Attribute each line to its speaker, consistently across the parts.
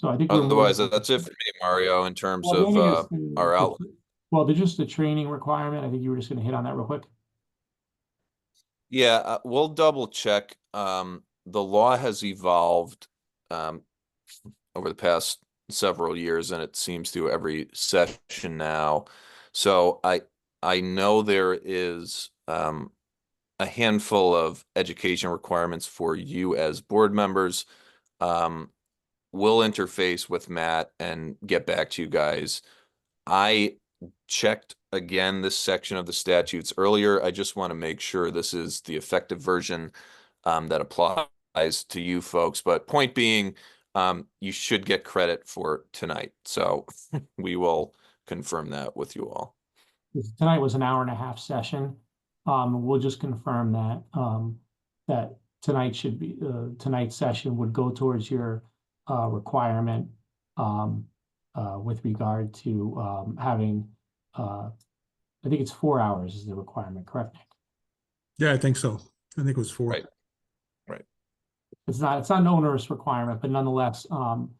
Speaker 1: So I think. we're more-
Speaker 2: Otherwise, that's it for me, Mario, in terms
Speaker 1: Well, the
Speaker 2: of,
Speaker 1: other
Speaker 2: uh,
Speaker 1: thing is the-
Speaker 2: our
Speaker 1: the-
Speaker 2: outlet.
Speaker 1: Well, there's just the training requirement. I think you were just gonna hit on that real quick.
Speaker 2: Yeah, uh, we'll double check. Um, the law has evolved um over the past several years and it seems to every session now. So I I know there is um a handful of education requirements for you as board members. Um, we'll interface with Matt and get back to you guys. I checked again this section of the statutes earlier. I just want to make sure this is the effective version um, that applies to you folks. But point being, um, you should get credit for tonight. So we will confirm that with you all.
Speaker 1: This- Tonight was an hour and a half session. Um, we'll just confirm that, um, that tonight should be, uh, tonight's session would go towards your, uh, requirement, um, uh, with regard to, um, having, uh, I think it's four hours is the requirement, correct? Nick?
Speaker 3: Yeah, I think so. I think it was four.
Speaker 2: Right.
Speaker 1: It's not, it's not an onerous requirement, but nonetheless, um,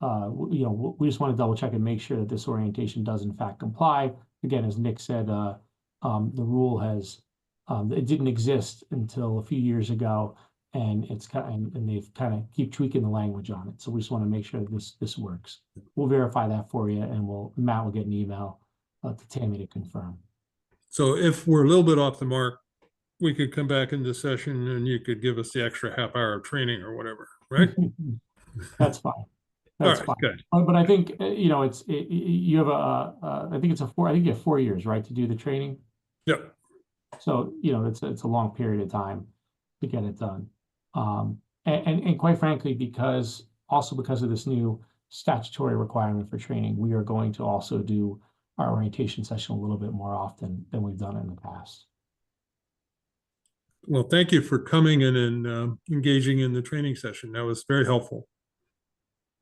Speaker 1: uh, w- you know, w- we just want to double check and make sure that this orientation does in fact comply. Again, as Nick said, uh, um, the rule has, um, it didn't exist until a few years ago. And it's kind, and they've kind of keep tweaking the language on it. So we just want to make sure that this, this works. We'll verify that for you and we'll, Matt will get an email, uh, to Tammy to confirm.
Speaker 3: So if we're a little bit off the mark, we could come back into session and you could give us the extra half hour of training or whatever, right?
Speaker 1: That's fine.
Speaker 3: All
Speaker 1: That's
Speaker 3: right,
Speaker 1: fine.
Speaker 3: good.
Speaker 1: Uh, But I think, uh, you know, it's, it- y- y- you have a, uh, I think it's a four, I think you have four years, right, to do the training?
Speaker 3: Yep.
Speaker 1: So, you know, it's, it's a long period of time to get it done. Um, and, and, and quite frankly, because, also because of this new statutory requirement for training, we are going to also do our orientation session a little bit more often than we've done in the past.
Speaker 3: Well, thank you for coming in and um, engaging in the training session. That was very helpful.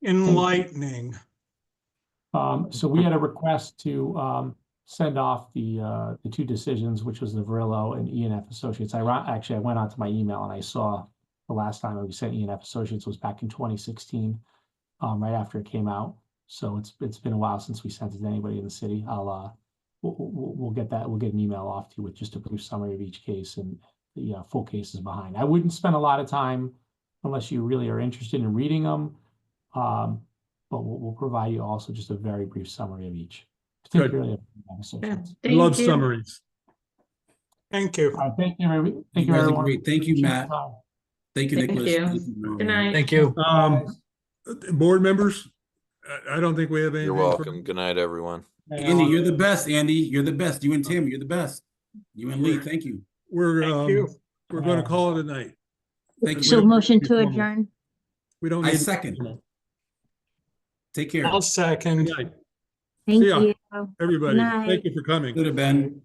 Speaker 4: Enlightening.
Speaker 1: Um, so we had a request to, um, send off the, uh, the two decisions, which was the Verillo and E and F Associates. I, ro- actually, I went onto my email and I saw the last time we sent E and F Associates was back in twenty sixteen, um, right after it came out. So it's, it's been a while since we sent it to anybody in the city. I'll, uh, we'll, we'll, we'll get that, we'll get an email off to you with just a brief summary of each case and the, uh, full cases behind. I wouldn't spend a lot of time unless you really are interested in reading them. Um, but we'll, we'll provide you also just a very brief summary of each.
Speaker 3: Good.
Speaker 1: particularly of the
Speaker 4: Yeah.
Speaker 1: associates.
Speaker 3: I Love
Speaker 5: Thank you.
Speaker 3: summaries.
Speaker 4: Thank you.
Speaker 1: All right, thank you, every- thank you,
Speaker 6: guys are
Speaker 1: everyone.
Speaker 6: great. Thank you,
Speaker 1: Appreciate
Speaker 6: Matt.
Speaker 1: your time.
Speaker 6: Thank you,
Speaker 5: Thank
Speaker 6: Nicholas.
Speaker 5: you. Good night.
Speaker 4: Thank you.
Speaker 3: Um, board members, I, I don't think we have anything.
Speaker 2: You're
Speaker 3: for-
Speaker 2: welcome. Good night, everyone.
Speaker 6: Andy, you're the best, Andy. You're the best. You and Tim, you're the best. You and Lee, thank you.
Speaker 3: We're,
Speaker 4: Thank
Speaker 3: um,
Speaker 4: you.
Speaker 3: we're going to call it a night.
Speaker 6: Thank
Speaker 7: So
Speaker 6: you.
Speaker 7: motion to
Speaker 3: formal.
Speaker 7: adjourn.
Speaker 3: We don't
Speaker 6: I
Speaker 3: need.
Speaker 6: second. Take care.
Speaker 4: I'll second.
Speaker 3: Good night,
Speaker 7: Thank
Speaker 3: ya.
Speaker 7: you.
Speaker 3: Everybody,
Speaker 7: Night.
Speaker 3: thank you for coming.
Speaker 6: Good, Ben.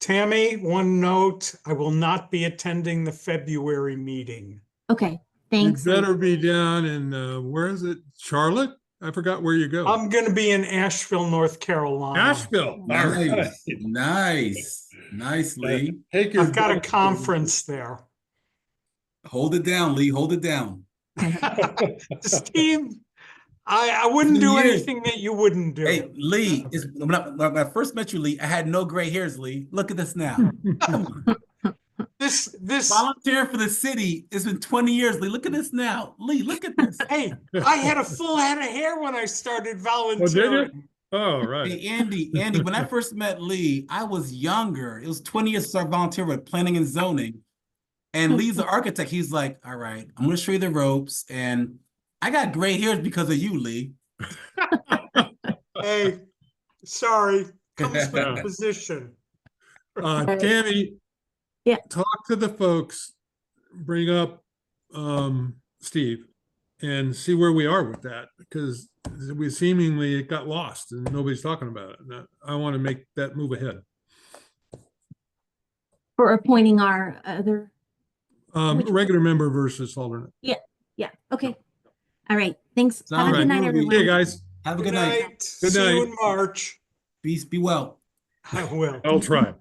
Speaker 4: Tammy, one note, I will not be attending the February meeting.
Speaker 7: Okay,
Speaker 3: You
Speaker 7: thanks.
Speaker 3: better be down in, uh, where is it? Charlotte? I forgot where you
Speaker 6: Oh.
Speaker 3: go.
Speaker 4: I'm going to be in Asheville, North Carolina.
Speaker 3: Nashville. All right.
Speaker 6: Nice, nice, nice, Lee.
Speaker 3: Take your
Speaker 4: I've got a
Speaker 3: best-
Speaker 4: conference there.
Speaker 6: Hold it down, Lee. Hold it down.
Speaker 4: Steve, I, I wouldn't do
Speaker 6: You.
Speaker 4: anything that you wouldn't
Speaker 6: Hey,
Speaker 4: do.
Speaker 6: Lee, it's, when I, when I first met you, Lee, I had no gray hairs, Lee. Look at this now. Come on.
Speaker 4: This, this,
Speaker 6: Volunteer for the city. It's been 20 years, Lee. Look at this now. Lee, look at this.
Speaker 4: hey, I had a full head of hair when I started
Speaker 6: Oh,
Speaker 4: volunteering.
Speaker 3: All right.
Speaker 6: Hey, Andy, Andy, when I first met Lee, I was younger. It was 20 years I volunteered with planning and zoning. And Lee's the architect. He's like, all right, I'm gonna show you the ropes. And I got gray hairs because of you, Lee.
Speaker 4: Hey, sorry, comes with the
Speaker 3: Yeah.
Speaker 4: position.
Speaker 3: Uh, Tammy.
Speaker 7: Yeah.
Speaker 3: Talk to the folks, bring up, um, Steve and see where we are with that because we seemingly it got lost and nobody's talking about it. And I- I want to make that move ahead.
Speaker 7: For appointing our other,
Speaker 3: Um,
Speaker 7: Which-
Speaker 3: regular member versus alternate.
Speaker 7: yeah, okay. All right, thanks. Have a
Speaker 6: Sounds
Speaker 7: good night,
Speaker 6: good.
Speaker 7: everyone.
Speaker 3: Hey, guys.
Speaker 6: Have a good night.
Speaker 4: See you
Speaker 3: night.
Speaker 4: in March.
Speaker 6: Peace, be well.
Speaker 4: I will.
Speaker 3: I'll try.